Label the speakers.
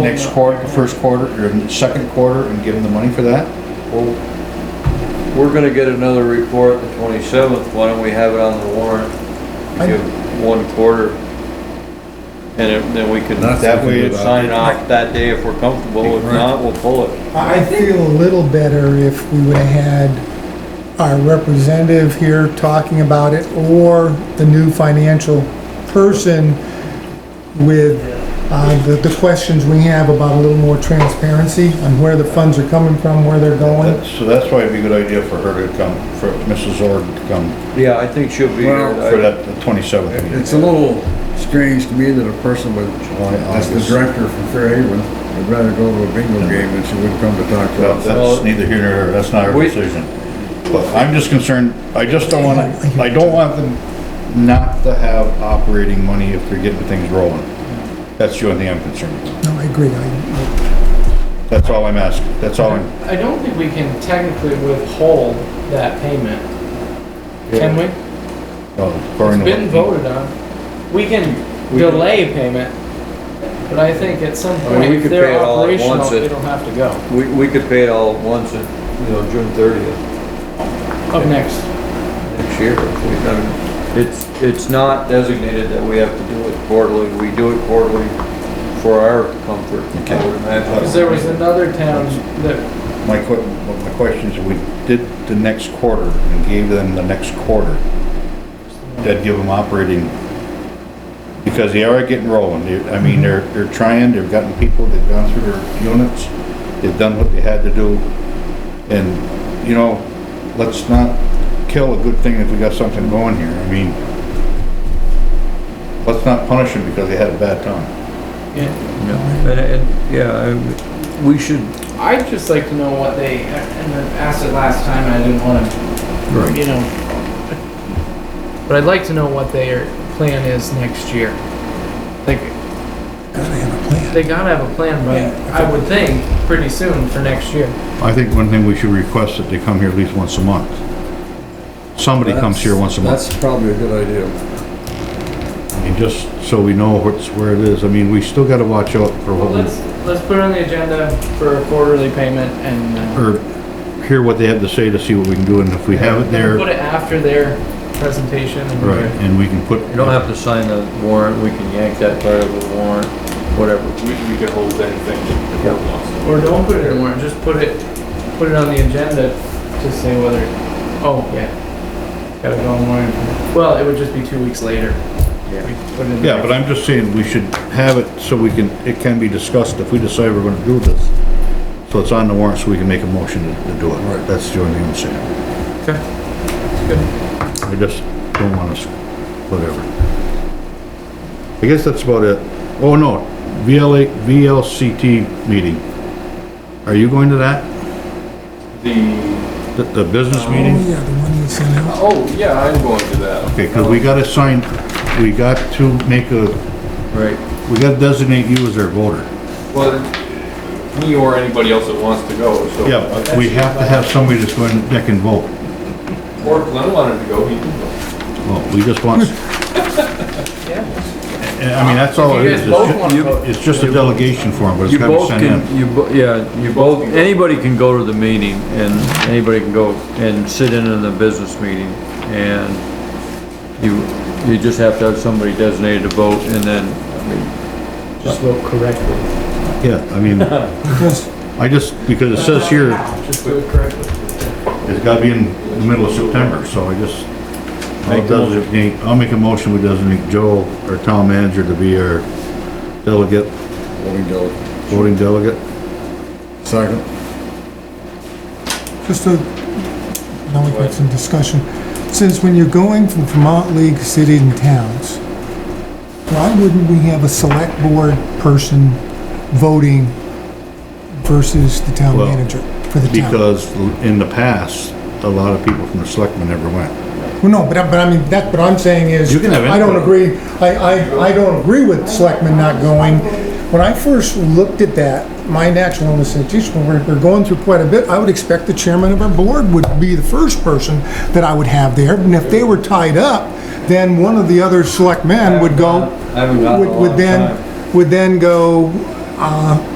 Speaker 1: next quarter, the first quarter, or the second quarter, and give them the money for that?
Speaker 2: Well, We're gonna get another report the twenty-seventh, why don't we have it on the warrant? Give one quarter. And it- then we can,
Speaker 3: That's
Speaker 2: that
Speaker 3: a
Speaker 2: way
Speaker 3: good
Speaker 2: we sign it off that day if we're comfortable, if
Speaker 3: Right.
Speaker 2: not, we'll pull it.
Speaker 4: I I feel a little better if we would have had our representative here talking about it or the new financial person with uh, the, the questions we have about a little more transparency on where the funds are coming from, where they're going.
Speaker 1: That's- So that's why it'd be a good idea for her to come, for Mrs. Org to come
Speaker 2: Yeah, I think she'll be
Speaker 3: Well,
Speaker 1: for
Speaker 2: here.
Speaker 1: that, the twenty-seventh meeting.
Speaker 3: It's a little strange to me that a person with,
Speaker 1: July,
Speaker 3: that's the
Speaker 1: August.
Speaker 3: director from Fairhaven, would rather go to a bingo game than she would come to talk to
Speaker 1: Well,
Speaker 3: us.
Speaker 1: That's neither here nor there, that's not our
Speaker 2: We-
Speaker 1: decision. But I'm just concerned, I just don't wanna, I don't want them not to have operating money if they're getting things rolling. That's the only thing I'm concerned with.
Speaker 4: No, I agree. I-
Speaker 1: That's all I'm asking, that's all I'm,
Speaker 5: I don't think we can technically withhold that payment, can we?
Speaker 1: uh, according
Speaker 5: It's
Speaker 1: to.
Speaker 5: been voted on. We can
Speaker 2: We can-
Speaker 5: delay payment, but I think at some
Speaker 2: mean,
Speaker 5: point,
Speaker 2: we
Speaker 5: if
Speaker 2: could pay
Speaker 5: they're
Speaker 2: it all at once
Speaker 5: operational,
Speaker 2: if-
Speaker 5: it'll have to go
Speaker 2: We, we could pay it all at once at, you know, June thirtieth
Speaker 5: up next.
Speaker 2: next year. if we- I mean, It's, it's not designated that we have to do it quarterly, we do it quarterly for our comfort, I would imagine.
Speaker 5: Because there was another town that,
Speaker 1: My que, my question is, if we did the next quarter and gave them the next quarter, that'd give them operating, because they are getting rolling, They- I mean, they're, they're trying, they've gotten people, they've gone through their units, they've done what they had to do, and, you know, let's not kill a good thing if we got something going here, I mean, let's not punish them because they had a bad time.
Speaker 5: yeah.
Speaker 2: Yeah, and, and, yeah, I- we should,
Speaker 5: I'd just like to know what they, and I asked it last time, and I didn't want to you know. But I'd like to know what their plan is next year. Like,
Speaker 4: Gotta have a plan.
Speaker 5: they gotta have a plan by, I would think, pretty soon for next year.
Speaker 1: I think one thing we should request that they come here at least once a month. Somebody comes here once a month.
Speaker 3: That's probably a good idea.
Speaker 1: And just so we know what's, where it is, I mean, we still gotta watch out for
Speaker 5: Well,
Speaker 1: what,
Speaker 5: let's,
Speaker 1: we-
Speaker 5: let's put it on the agenda for a quarterly payment and, uh,
Speaker 1: or hear what they have to say to see what we can do, and if we have it there,
Speaker 5: put it after their presentation and.
Speaker 1: right, and we can put.
Speaker 2: you don't have to sign the warrant, we can yank that part of the warrant, whatever.
Speaker 6: We, we can hold anything that the board wants.
Speaker 5: Or don't put it in warrant, just put it, put it on the agenda to say whether, oh, yeah. Gotta go on warrant. Well, it would just be two weeks later.
Speaker 2: Yeah.
Speaker 5: We put it in the
Speaker 1: Yeah, but I'm just saying, we should have it so we can, it can be discussed if we decide we're gonna do this. So it's on the warrant, so we can make a motion to, to do it. Right. That's the only thing I'm saying.
Speaker 5: Okay.
Speaker 1: I just don't want us, whatever. I guess that's about it. Oh, no, VLA, VLCT meeting. Are you going to that?
Speaker 6: The,
Speaker 1: The, the business
Speaker 4: Oh,
Speaker 1: meeting?
Speaker 4: yeah, the one you sent out.
Speaker 6: oh, yeah, I'm going to that.
Speaker 1: Okay, cause we gotta sign, we got to make a,
Speaker 2: Right.
Speaker 1: we gotta designate you as our voter.
Speaker 6: Well, me or anybody else that wants to go, so.
Speaker 1: Yeah, but we have to have somebody that's going, that can vote.
Speaker 6: Or if Glenn wanted to go, he can go.
Speaker 1: Well, we just want. And, I mean, that's all it
Speaker 5: You
Speaker 1: is.
Speaker 5: guys
Speaker 1: It's
Speaker 5: both
Speaker 1: ju-
Speaker 5: wanna
Speaker 1: you-
Speaker 5: vote.
Speaker 1: It's just a delegation form, but it's
Speaker 2: You
Speaker 1: gotta be
Speaker 2: both
Speaker 1: sent in.
Speaker 2: can, you, bo- yeah, you both,
Speaker 6: can go.
Speaker 2: anybody can go to the meeting and anybody can go and sit in on the business meeting and you, you just have to have somebody designated to vote and then, I mean,
Speaker 5: Just vote correctly.
Speaker 1: Yeah, I mean, I just, because it says here,
Speaker 5: Just do it correctly.
Speaker 1: it's gotta be in the middle of September, so I just. I'll
Speaker 2: Make a motion.
Speaker 1: designate, I'll make a motion, we designate Joe, our town manager, to be our delegate,
Speaker 3: What we do.
Speaker 1: voting delegate.
Speaker 3: Second.
Speaker 4: Just a, now we've got some discussion. Since when you're going from Vermont League City and Towns, why wouldn't we have a select board person voting versus the town
Speaker 1: Well,
Speaker 4: manager for the town?
Speaker 1: Because in the past, a lot of people from the selectmen never went.
Speaker 4: Well, no, but I, but I mean, that's what I'm saying is,
Speaker 1: You can have
Speaker 4: I don't
Speaker 1: input.
Speaker 4: agree, I, I, I don't agree with selectmen not going. When I first looked at that, my natural instinct, geez, when we're, we're going through quite a bit, I would expect the chairman of our board would be the first person that I would have there, and if they were tied up, then one of the other selectmen would go,
Speaker 2: I haven't gone in a
Speaker 4: would,
Speaker 2: long time.
Speaker 4: would then, would then go, uh,